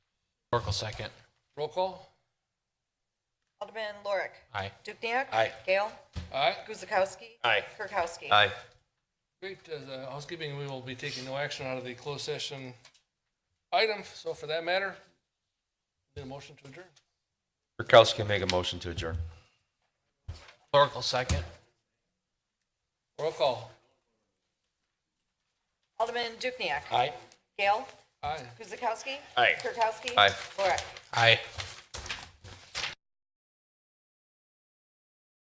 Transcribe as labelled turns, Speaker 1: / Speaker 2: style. Speaker 1: Oracle second. Roll call?
Speaker 2: Alderman Lorik.
Speaker 1: Aye.
Speaker 2: Dukniak.
Speaker 3: Aye.
Speaker 2: Gale.
Speaker 1: Aye.
Speaker 2: Guzekowski.
Speaker 3: Aye.
Speaker 2: Kirkowski.
Speaker 3: Aye.
Speaker 1: Great, as uh, housekeeping, we will be taking no action out of the closed session item, so for that matter, need a motion to adjourn.
Speaker 3: Kirkowski make a motion to adjourn.
Speaker 1: Oracle second. Roll call?
Speaker 2: Alderman Dukniak.
Speaker 3: Aye.
Speaker 2: Gale.
Speaker 1: Aye.
Speaker 2: Guzekowski.
Speaker 3: Aye.
Speaker 2: Kirkowski.
Speaker 3: Aye.
Speaker 2: Lorik.
Speaker 1: Aye.